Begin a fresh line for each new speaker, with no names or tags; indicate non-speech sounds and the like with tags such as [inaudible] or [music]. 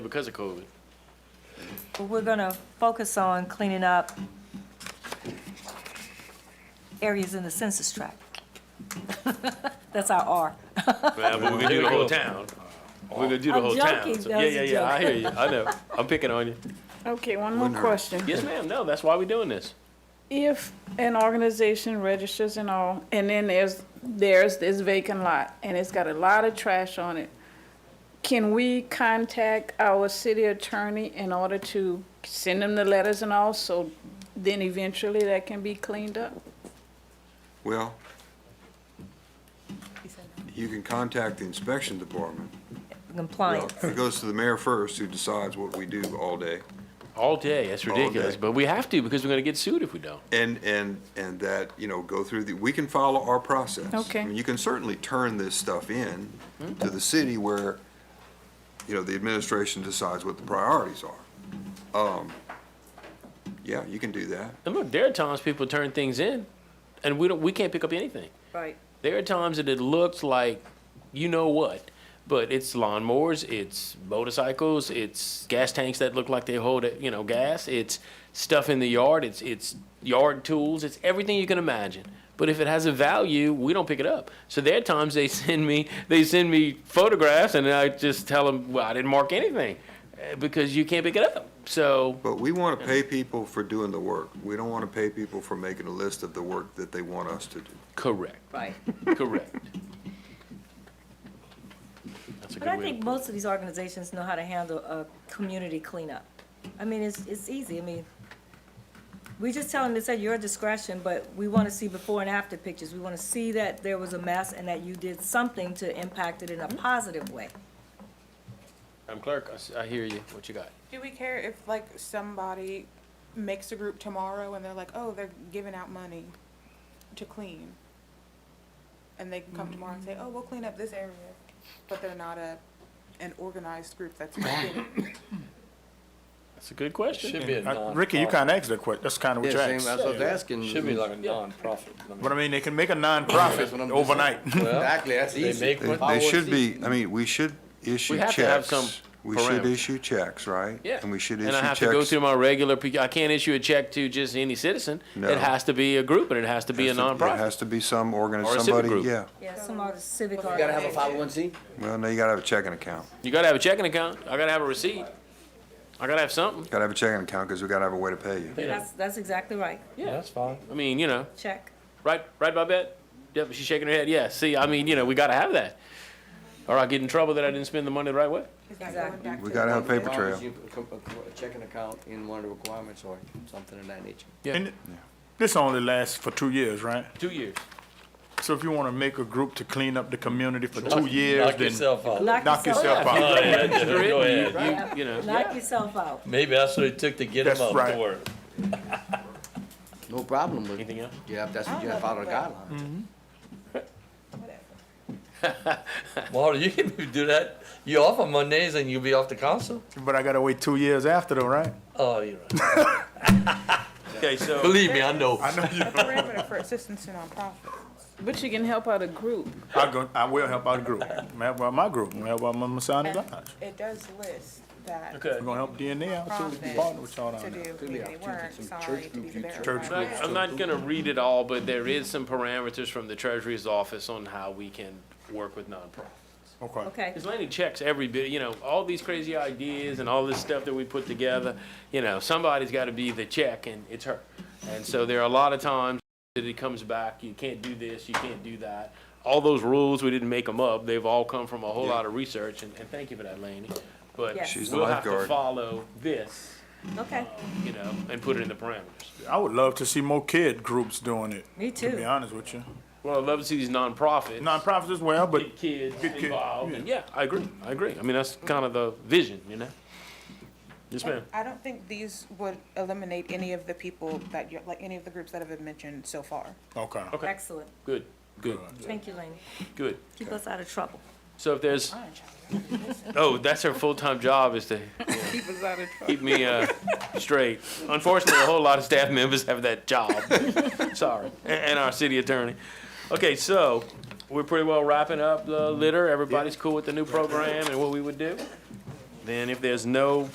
because of COVID.
But we're going to focus on cleaning up areas in the census tract. [laughs] That's our R.
But we're gonna do the whole town. We're gonna do the
I'm
whole town.
joking,
So-
that
Yeah,
was
Oh. [laughs] yeah,
a
yeah, I hear you, I know, I'm picking on you.
Okay, one more question.
Yes, ma'am, no, that's why we're doing this.
If an organization registers and all, and then there's, there's this vacant lot, and it's got a lot of trash on it, can we contact our city attorney in order to send them the letters and all, so then eventually that can be cleaned up?
Well, you can contact the inspection department. Well,
Compliance.
It goes to the mayor first, who decides what we do all day.
All day, that's
All day.
ridiculous, but we have to because we're gonna get sued if we don't.
And, and, and that, you know, go through the, we can follow our process.
Okay.
I mean, You can certainly turn this stuff in to the city where, you know, the administration decides what the priorities are. Um, Yeah, you can do that.
And look, there are times people turn things in and we don't, we can't pick up anything.
Right.
There are times that it looks like you know what, but it's lawnmowers, it's motorcycles, it's gas tanks that look like they hold you know gas, it's stuff in the yard, it's it's yard tools, it's everything you can imagine. But if it has a value, we don't pick it up. So there are times they [laughs] send me they send me photographs and I just tell them, well, I didn't mark anything eh, because you can't pick it up. So
But we want to pay people for doing the work. We don't want to pay people for making a list of the work that they want us to do.
correct,
Right.
[laughs]
correct. That's a
But I
good way.
think most of these organizations know how to handle a community cleanup. I mean, it's, it's easy. I mean, we just tell them it's at your discretion, but we want to see before and after pictures. We want to see that there was a mess and that you did something to impact it in a
Mm-hmm.
positive way.
I'm clerk. I s- I hear you. What you got?
Do we care if like somebody makes a group tomorrow and they're like, oh, they're giving out money to clean? And they come tomorrow and say, oh, we'll clean up this area, but they're not a, an organized group that's gonna get it.
That's a good question.
Should be a
I-
non.
uh, Ricky, you kind of asked that question. That's kind of what you
Yeah, same,
asked.
as I was asking. [laughs]
Should be like a
Yeah.
nonprofit. I mean,
But I mean, they can make a
That's
nonprofit
what I'm just
overnight.
Exactly, that's
They
easy.
make
They-
what?
They should be, I mean, we should issue
We have
checks.
to have some
We should
parameters.
issue checks, right?
Yeah.
And we should issue
And
checks.
I have to go through my regular, pe- I can't issue a check to just any citizen.
No.
It has to be a group and it has to be a
Has to- It
nonprofit.
has to be some organ,
Or a civic
somebody,
group.
yeah.
Yeah, some are civic
You gotta have
organizations.
a 501c.
Well, no, you gotta have a checking account.
You gotta have a checking account. I gotta have a receipt. I gotta have something.
Gotta have a checking account, because we gotta have a way to pay you.
That's, that's exactly right.
Yeah, that's fine.
I mean, you know,
Check.
right, right, Babette? Yep, she's shaking her head. Yeah, see, I mean, you know, we gotta have that. Or I get in trouble that I didn't spend the money the right way.
Is that going
Exactly.
back to
We
the
gotta have a paper
As long as
trail.
you uh, put A a checking account in one of the requirements or something of that nature.
And this only lasts for two years, right?
Two years.
So if you want to make a group to clean up the community for two
Knock-
years,
Knock
then
yourself out.
Knock
knock
yourself
yourself out.
Oh, yeah, yeah, [laughs] go
You,
ahead.
you know,
Knock yourself out.
Maybe that's what it took to get them
That's
up
right.
to work.
No problem with
anything else?
Yeah, if that's what you have out of the guidelines.
Marty, you can do that. You off on Mondays and you'll be off the council?
But I gotta wait two years after though, right?
Oh, you're right.
Okay, so.
Believe me, I know.
perimeter for assistance to nonprofits?
But you can help out a group.
I go, I will help out the group. I'm gonna help out my group. I'm gonna help out my Masonic Lodge.
It does list that
Okay.
We're gonna help DNA out too. We can partner with y'all
nonprofits to
down there.
do community work, sorry, to be there.
Church
I'm not- I'm not gonna read it all, but there is some parameters from the treasurer's office on how we can work with nonprofits.
Okay.
Okay.
Because Lanny checks every bit, you know, all these crazy ideas and all this stuff that we put together, you know, somebody's got to be the check, and it's her. And so there are a lot of times that it comes back, you can't do this, you can't do that. All those rules, we didn't make them up, they've all come from a whole lot of research, and, and thank you for that, Lanny. But
Yes. She's
the
we'll have to
lifeguard.
follow this,
Okay.
you know, and put it in the parameters.
I would love to see more kid groups doing it.
Me
To be
too.
honest with you,
Well, I'd love to see these nonprofits.
nonprofits as well, but
get kids
Get kid-
involved. and yeah, I agree. I agree. I mean, that's kind of the vision, you know? Yes, ma'am.
I don't think these would eliminate any of the people that you're, like, any of the groups that have been mentioned so far.
okay.
Okay,
Excellent.
good, good,
Thank you, Lane.
good.
Keep us out of trouble.
So if there's, oh, that's her full-time job is to
[laughs] Keep us out of trouble.
keep me, uh, straight. Unfortunately, a whole lot of staff members have that
[laughs]
job. Sorry. And, and our city attorney. Okay, so we're pretty well wrapping up the litter. Everybody's cool with the new program and what we would do? Then if there's no